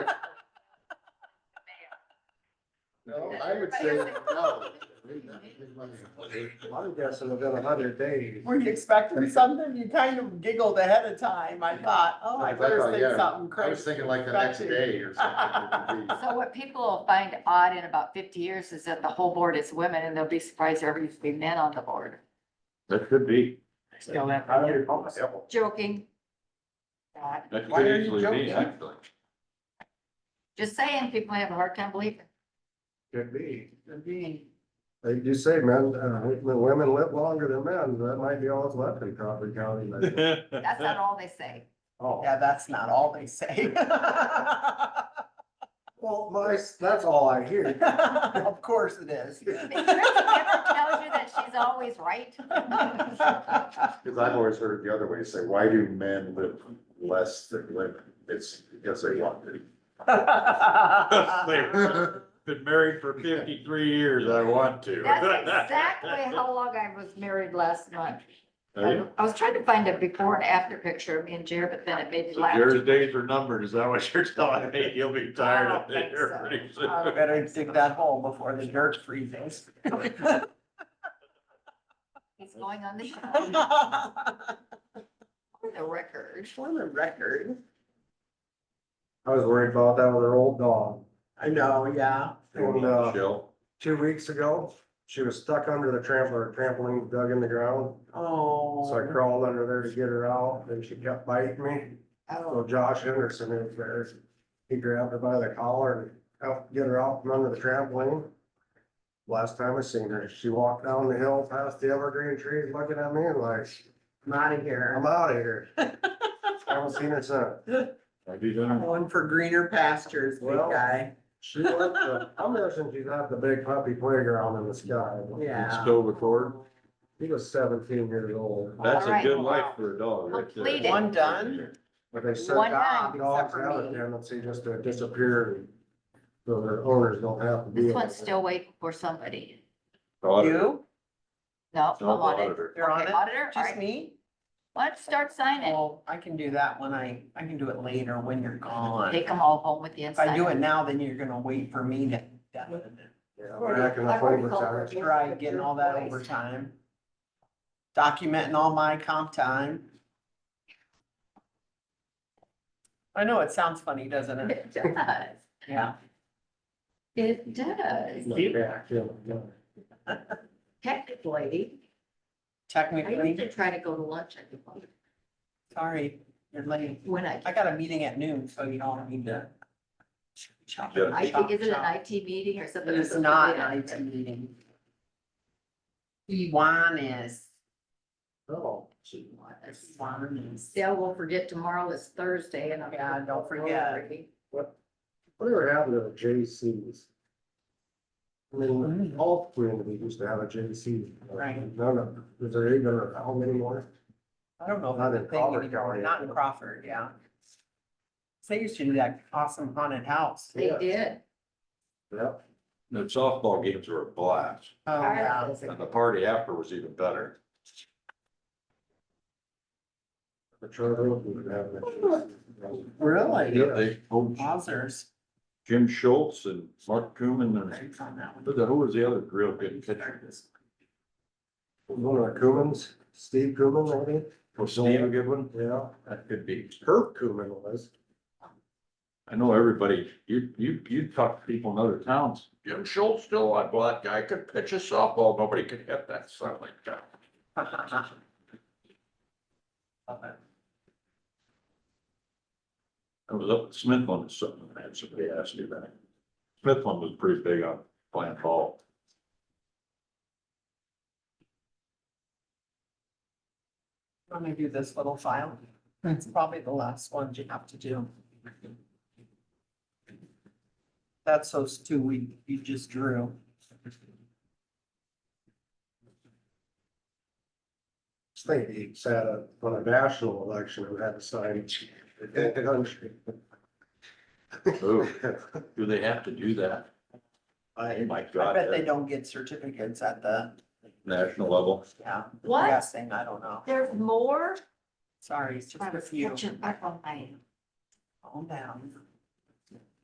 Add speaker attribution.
Speaker 1: No, I would say no. I'm guessing within a hundred days.
Speaker 2: Were you expecting something? You kind of giggled ahead of time. I thought, oh, I
Speaker 1: I thought,
Speaker 2: better
Speaker 1: yeah,
Speaker 2: say
Speaker 1: I
Speaker 2: something
Speaker 1: was
Speaker 2: crazy.
Speaker 1: thinking like the next day or something.
Speaker 3: So what people will find odd in about fifty years is that the whole board is women and they'll be surprised there ever used to be men on the board.
Speaker 4: That could be.
Speaker 2: Still that-
Speaker 1: I don't recall myself.
Speaker 3: Joking. God,
Speaker 4: That
Speaker 2: Why are
Speaker 4: could
Speaker 2: you
Speaker 4: easily
Speaker 2: joking?
Speaker 4: be, actually.
Speaker 3: Just saying, people have a hard time believing.
Speaker 1: Could be.
Speaker 2: Could be.
Speaker 1: Like you say, men, uh, women live longer than men. That might be all that's left in Crawford County. but-
Speaker 3: That's uh, not all they say.
Speaker 1: Oh.
Speaker 2: Yeah, that's not all they say.
Speaker 1: Well, my, that's all I hear.
Speaker 2: Of course it is.
Speaker 3: But Tracy never tells you that she's always right.
Speaker 1: Cause I've always heard it the other way, say, why do men live less than women? It's because they want to.
Speaker 3: uh,
Speaker 4: Been married for fifty-three years, I want to.
Speaker 3: That's exactly how long I was married last month.
Speaker 4: There you-
Speaker 3: I was trying to find a before and after picture of me and Jared, but then it made me
Speaker 4: So
Speaker 3: laugh.
Speaker 4: Jared's days are numbered, is that what you're telling me? You'll be tired of
Speaker 3: I don't
Speaker 4: it
Speaker 3: think
Speaker 4: here
Speaker 3: so.
Speaker 4: pretty soon.
Speaker 2: I Better dig that hole before the dirt freezes.
Speaker 3: He's going on the show,
Speaker 2: For
Speaker 3: for the record.
Speaker 2: the record,
Speaker 1: I was worried about that with her old dog.
Speaker 2: I know, yeah.
Speaker 1: And, uh,
Speaker 4: Jill,
Speaker 1: two weeks ago, she was stuck under the trampler, trampoline dug in the ground. So I
Speaker 2: Oh.
Speaker 1: crawled under there to get her out, and she kept biting me. So
Speaker 3: Oh,
Speaker 1: Josh Henderson is there. He grabbed her by the collar and helped get her out from under the trampoline. Last time I seen her, she walked down the hill past the evergreen trees looking at me and like,
Speaker 2: I'm out of here.
Speaker 1: I'm out of here. Haven't seen her since.
Speaker 4: have you done?
Speaker 2: Going for greener pastures, big
Speaker 1: Well-
Speaker 2: guy.
Speaker 1: She left the, I'm guessing she's at the big puppy playground in the sky.
Speaker 2: Yeah.
Speaker 4: Stole the cord?
Speaker 1: He was seventeen years old,
Speaker 4: That's a
Speaker 3: Alright.
Speaker 4: good life for a dog, right there.
Speaker 3: Complete it.
Speaker 2: One done?
Speaker 1: but they said
Speaker 3: One
Speaker 1: dogs
Speaker 3: night,
Speaker 2: except
Speaker 1: have
Speaker 2: for
Speaker 1: a
Speaker 2: me.
Speaker 1: tendency just to disappear. and So their owners don't have to be.
Speaker 3: this one's still waiting for somebody.
Speaker 4: Daughter,
Speaker 2: You?
Speaker 3: No, I'm
Speaker 4: not the
Speaker 3: on it.
Speaker 4: auditor.
Speaker 2: You're on
Speaker 3: Okay,
Speaker 2: it?
Speaker 3: Auditor, all
Speaker 2: Just
Speaker 3: right,
Speaker 2: me?
Speaker 3: why don't you start signing?
Speaker 2: Well, I can do that when I, I can do it later when you're gone.
Speaker 3: Take them all home with you and
Speaker 2: If I
Speaker 3: sign
Speaker 2: do it
Speaker 3: them.
Speaker 2: now, then you're gonna wait for me to
Speaker 1: Yeah, back in the
Speaker 3: I've already
Speaker 1: flavor
Speaker 3: called
Speaker 1: time.
Speaker 3: her.
Speaker 2: try getting all that overtime. Documenting all my comp time. I know, it sounds funny, doesn't it?
Speaker 3: It does.
Speaker 2: Yeah.
Speaker 3: It does.
Speaker 1: Yeah, yeah, yeah.
Speaker 3: Technically, I used
Speaker 2: Technically,
Speaker 3: to try to go to lunch at the bar
Speaker 2: sorry, you're late.
Speaker 3: when I,
Speaker 2: I got a meeting at noon, so you all need to. Chop,
Speaker 4: Yeah.
Speaker 3: I
Speaker 2: chop,
Speaker 3: think, is it
Speaker 2: chop.
Speaker 3: an IT meeting or something?
Speaker 2: It is not an IT meeting. Iwan is,
Speaker 1: Oh,
Speaker 2: Iwan is.
Speaker 3: Still, we'll forget tomorrow is Thursday and I'm.
Speaker 2: Yeah, don't forget.
Speaker 1: what, whatever happened to the JCs? I mean, all communities used to have a JC.
Speaker 2: Right.
Speaker 1: None of, is there even, a- how many more?
Speaker 2: I don't know
Speaker 1: Not
Speaker 2: about the
Speaker 1: in
Speaker 2: thing
Speaker 1: Crawford
Speaker 2: anymore,
Speaker 1: County.
Speaker 2: not in Crawford, yeah. They used to do that awesome haunted house.
Speaker 3: They
Speaker 1: Yeah.
Speaker 3: did.
Speaker 1: Yep.
Speaker 4: The softball games were a blast,
Speaker 2: Oh, yeah.
Speaker 4: and the party after was even better.
Speaker 1: The charter would have that.
Speaker 2: Really?
Speaker 1: Yeah.
Speaker 4: They, oh,
Speaker 2: Wowzers.
Speaker 4: Jim Schultz and Mark Cooman and,
Speaker 2: Thanks on that one.
Speaker 4: who the- who was the other real good pitcher?
Speaker 1: One of the Coombs, Steve Coombs, maybe?
Speaker 4: Was Steve a good one?
Speaker 1: Yeah,
Speaker 4: That could be.
Speaker 1: Herb Coombs was.
Speaker 4: I know everybody, you, you, you talk to people in other towns. Jim Schultz still, a black guy could pitch a softball, nobody could hit that son of a gun.
Speaker 2: Love it.
Speaker 4: I was up at Smithland or something, and somebody asked me that. Smithland was pretty big on playing ball.
Speaker 2: Let me do this little file. It's probably the last one you have to do. That's those two we, you just drew.
Speaker 1: Just think he sat up on a national election and had to sign the whole country.
Speaker 4: Oh, do they have to do that? Oh
Speaker 2: I
Speaker 4: my
Speaker 2: I
Speaker 4: God,
Speaker 2: bet they
Speaker 4: at
Speaker 2: don't get certificates at the,
Speaker 4: national level.
Speaker 2: yeah. I'm
Speaker 3: What?
Speaker 2: Guessing, I don't know.
Speaker 3: There's more?
Speaker 2: Sorry, it's just
Speaker 3: I
Speaker 2: a
Speaker 3: was
Speaker 2: few.
Speaker 3: catching up on my
Speaker 2: Calm down.